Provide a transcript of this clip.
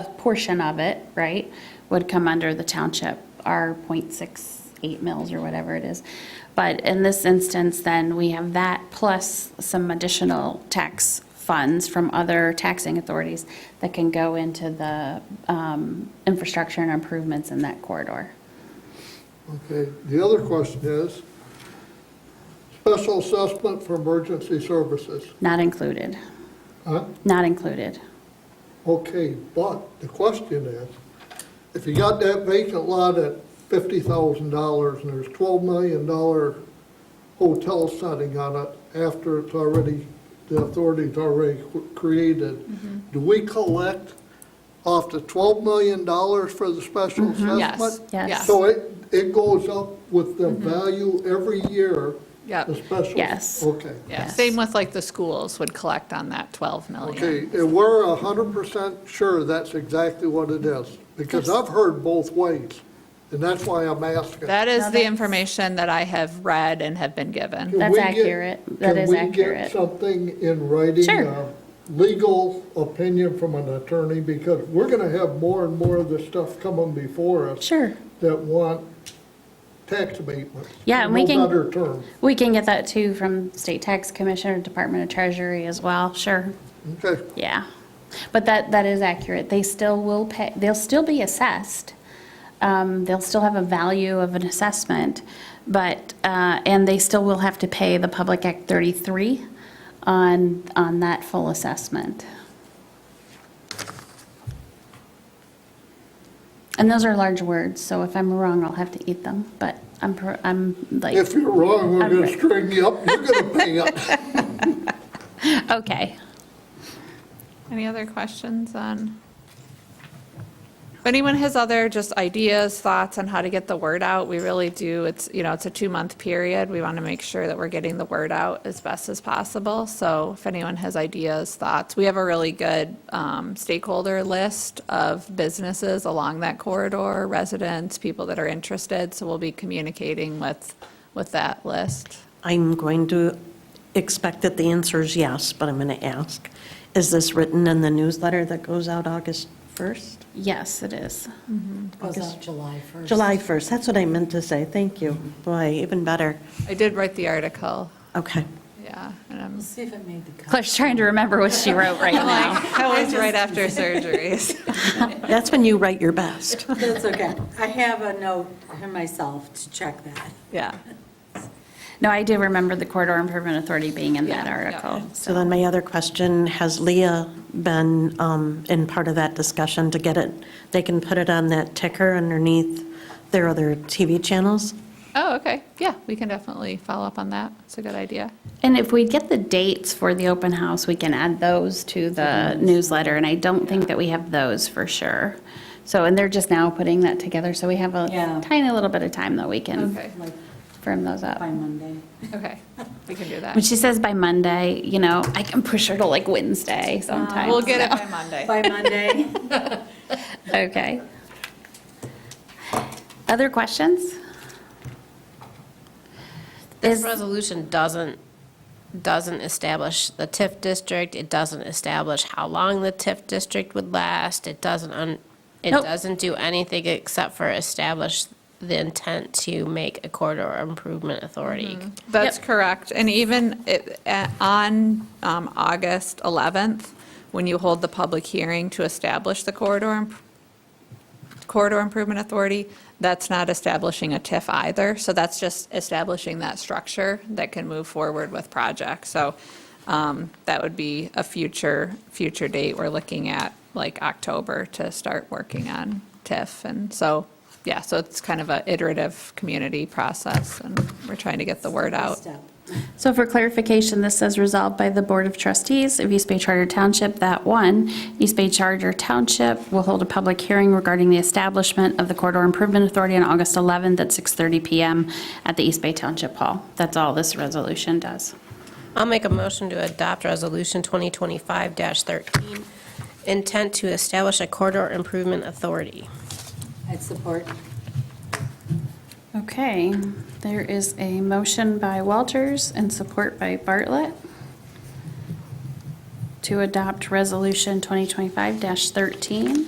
portion of it, right, would come under the township, our .68 mills or whatever it is. But in this instance, then, we have that plus some additional tax funds from other taxing authorities that can go into the um, infrastructure and improvements in that corridor. Okay, the other question is, special assessment for emergency services. Not included, Huh? not included. Okay, but the question is, if you got that vacant lot at fifty thousand dollars and there's twelve million dollar hotel setting on it after it's already, the authority's already cr- Mm-hmm. created, do we collect off the twelve million dollars for the special assessment? Mm-hmm. Yes, Mm-hmm. Yes. yes, So it, it goes up with the value every year, yep, the special? Yes. Oh, Okay. yeah. Same with like the schools would collect on that 12 million. Okay, and we're a hundred percent sure that's exactly what it is, because I've heard both ways, and that's why I'm asking. That Now is the that's- information that I have read and have been given. Can That's we get- accurate. That is Can we get accurate. something in writing, Sure. a legal opinion from an attorney, because we're gonna have more and more of this stuff coming before us Sure. that want tax abatements. Yeah, and we No can- better term, We can get that too from State Tax Commission or Department of Treasury as well, sure, okay. yeah. But that, that is accurate, they still will pay, they'll still be assessed. Um, They'll still have a value of an assessment, but, uh, and they still will have to pay the Public Act 33 on, on that full assessment. And those are large words, so if I'm wrong, I'll have to eat them, but I'm, per- I'm like. If you're wrong, we're I'm gonna right. string you up, you're gonna pay up. Okay. Any other questions on? If anyone has other just ideas, thoughts on how to get the word out, we really do, it's, you know, it's a two-month period. We want to make sure that we're getting the word out as best as possible. So if anyone has ideas, thoughts, we have a really good um, stakeholder list of businesses along that corridor, residents, people that are interested. So we'll be communicating with, with that list. I'm going to expect that the answer is yes, but I'm going to ask, is this written in the newsletter that goes out August 1st? Yes, it is. Goes August- out July 1st. July 1st, that's what I meant to say, thank you. Boy, even better. I did write the article, Okay. yeah, and I'm We'll see if it made the cut. Claire's trying to remember what she wrote right now. like, that was right after surgeries. That's when you write your best. That's okay. I have a note for myself to check that. Yeah. No, I do remember the corridor improvement authority being in that Yeah, yeah. article. So then my other question, has Leah been um, in part of that discussion to get it? They can put it on that ticker underneath their other TV channels? Oh, okay. Yeah, we can definitely follow up on that. It's a good idea. And if we get the dates for the open house, we can add those to the newsletter, and I don't think that we have those for sure. So, and they're just now putting that together, so we have a Yeah. tiny little bit of time that we Okay. can Like firm those up. by Monday. Okay, we can do When that. she says by Monday, you know, I can push her to like Wednesday sometimes. Uh, We'll get it by Monday. By Monday. Okay. Other questions? This Is- resolution doesn't, doesn't establish the TIF district, it doesn't establish how long the TIF district would last, it doesn't, un- it Nope. doesn't do anything except for establish the intent to make a corridor improvement authority. That's correct. And even it- eh, on um, August 11th, when you hold the public hearing to establish the corridor, imp- corridor improvement authority, that's not establishing a TIF either. So that's just establishing that structure that can move forward with projects. So um, that would be a future, future date. We're looking at like October to start working on TIF. And so, yeah, so it's kind of a iterative community process and we're trying to get the word out. Step. So for clarification, this says resolved by the Board of Trustees of East Bay Charter Township that one, East Bay Charter Township will hold a public hearing regarding the establishment of the Corridor Improvement Authority on August 11th at 6:30 PM at the East Bay Township Hall. That's all this resolution does. I'll make a motion to adopt Resolution 2025-13, intent to establish a corridor improvement authority. I'd support. Okay, there is a motion by Walters and support by Bartlett to adopt Resolution 2025-13.